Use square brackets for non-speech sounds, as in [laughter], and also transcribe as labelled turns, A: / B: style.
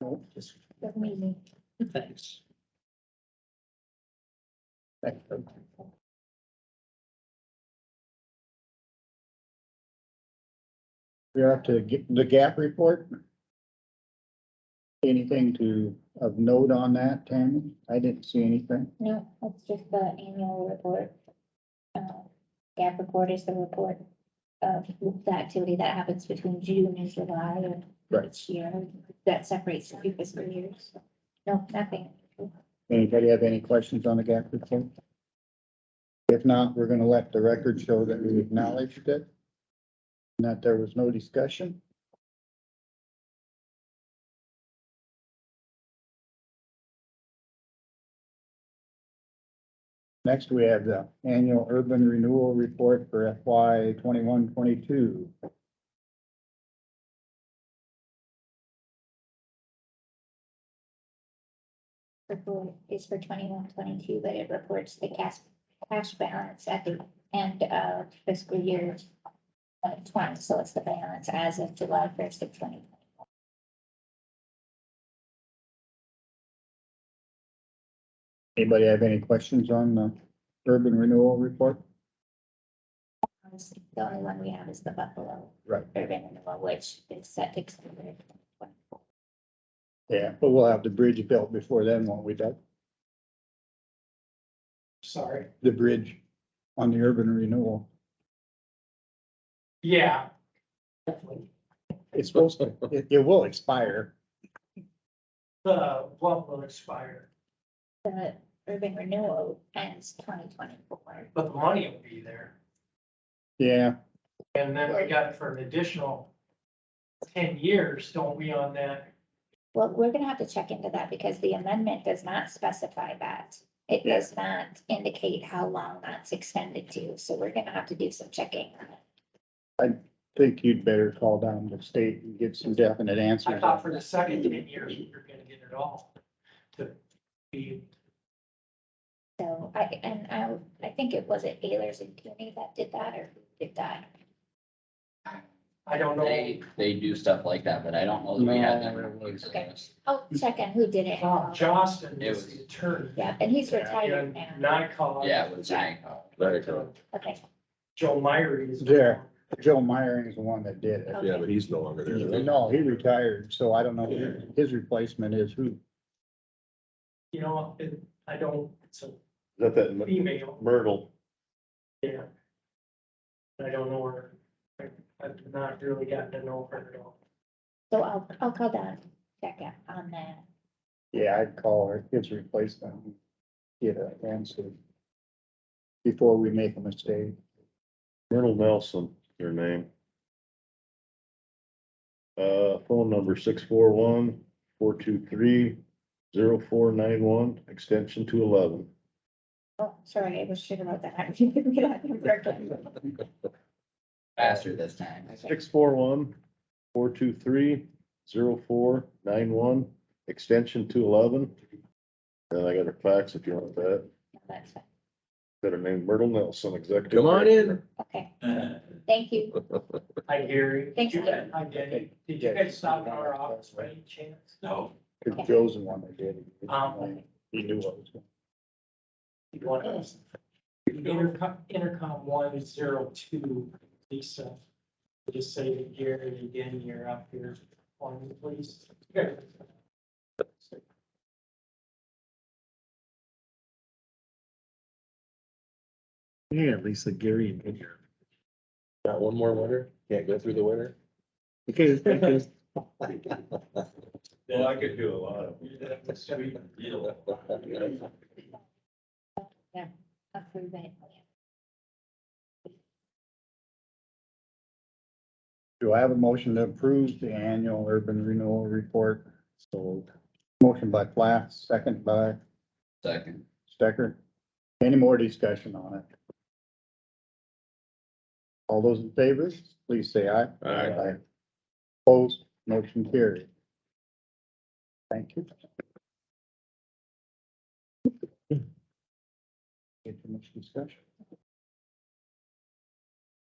A: No, just,
B: Good meeting.
A: thanks. Thank you. We are up to g- the gap report. Anything to, of note on that, Tammy? I didn't see anything.
B: No, that's just the annual report. Uh, Gap report is the report of the activity that happens between June and July of
A: Right.
B: each year. That separates the two fiscal years. No, nothing.
A: Anybody have any questions on the gap report? If not, we're gonna let the record show that we acknowledged it. And that there was no discussion. Next, we have the annual urban renewal report for FY twenty-one, twenty-two.
B: Report is for twenty-one, twenty-two, but it reports the cash, cash balance at the end of fiscal year uh, twenty, so it's the balance as of July first of twenty.
A: Anybody have any questions on the urban renewal report?
B: The only one we have is the Buffalo
A: Right.
B: urban renewal, which is set to expire.
A: Yeah, but we'll have the bridge built before then, won't we, Doug?
C: Sorry.
A: the bridge on the urban renewal.
C: Yeah.
A: It's supposed to, it, it will expire.
C: The what will expire,
B: The urban renewal ends twenty twenty-four.
C: but the money will be there.
A: Yeah,
C: And then we got it for an additional ten years, don't we, on that?
B: Well, we're gonna have to check into that because the amendment does not specify that. It does not indicate how long that's extended to, so we're gonna have to do some checking. on it.
A: think you'd better call down the state and get some definite
C: I
A: answers.
C: thought for the second ten years, we were gonna get it all to be,
B: So I, and I, I think it was it Ayers and Cooney that did that or who did that.
C: I don't know.
D: They, they do stuff like that, but I don't know that we had them.
A: No.
D: reviews in
B: Okay.
D: this.
B: I'll check on who did it.
C: Tom Johnston
D: It
C: was
D: was-
C: the attorney.
B: Oh, Yeah, and he's retired
C: And
B: now.
C: Nycog.
D: Yeah, with Zhang.
E: Very cool.
B: Okay,
C: Joe Myrie is.
A: There. Joe Myring is the one that did it.
E: Yeah, but he's no longer there.
A: No, he retired, so I don't know who his replacement is who.
C: You know, it, I don't, it's a
F: Is that that
C: female,
F: Myrtle?
C: yeah. I don't know her. I- I've not really gotten to know her at all.
B: so I'll, I'll call down, check out on that.
A: Yeah, I'd call her, his replacement. Get an answer. Before we make a mistake.
F: Myrtle Nelson, your name. Uh, phone number six four one, four two three, zero four nine one, extension two eleven.
B: Oh, sorry, I was sure about that. [laughs] I didn't get that correctly.
D: Faster this time.
F: Six four one, four two three, zero four nine one, extension two eleven. And I got her fax if you want that.
B: That's fine.
F: Got her name Myrtle Nelson, executive.
E: Come on in.
B: Okay, thank you.
C: Uh, Hi, Gary.
B: Thanks,
C: You
B: Gary.
C: guys- Hi, Danny. Did you guys stop in our office by any chance? No.
A: Cause Joe's the one that did it.
C: Um.
A: He knew what was. going
C: You want us? Intercom, intercom one zero two, Lisa. Just say to Gary and Danny, you're up here on me, please.
E: Yeah, Lisa, Gary and Ginger. Got one more winter? Can't go through the winter?
A: on.
G: [laughs] Well, I could do a lot of. Sweet
E: [laughs]
G: deal.
B: Approve it.
A: Do I have a motion to approve the annual urban renewal report?
E: So
A: Motion by Plath, second by
D: Second.
A: Stecker. Any more discussion on it? All those in favor, please say aye.
E: Aye.
A: Opposed, motion carried. Thank you. Get too much discussion.